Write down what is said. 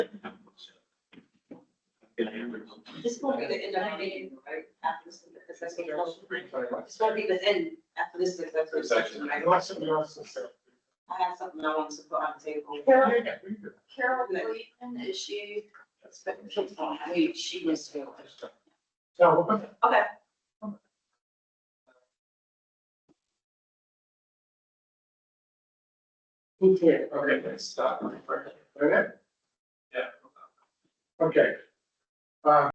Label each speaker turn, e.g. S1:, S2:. S1: This won't be the end of the meeting, right, after this, because that's what we're- This won't be the end after this, because that's what section, right? I have something I wanted to put on the table.
S2: Carol, Carol
S1: Cleveland, is she? Wait, she was. Okay. Me too.
S2: Okay, let's stop. Okay? Yeah. Okay. Um,